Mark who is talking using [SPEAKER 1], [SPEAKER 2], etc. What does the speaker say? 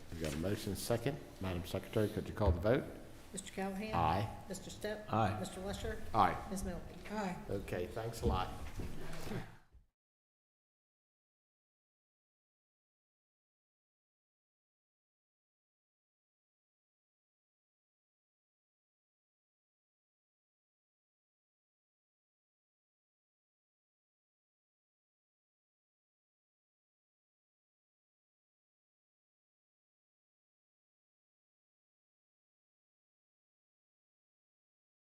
[SPEAKER 1] motion second. Madam Secretary, could you call the vote?
[SPEAKER 2] Mr. Callahan?
[SPEAKER 1] Aye.
[SPEAKER 2] Mr. Step?
[SPEAKER 3] Aye.
[SPEAKER 2] Mr. Lusher?
[SPEAKER 1] Aye.
[SPEAKER 2] Ms. Milky?
[SPEAKER 4] Aye.
[SPEAKER 1] Okay, thanks a lot.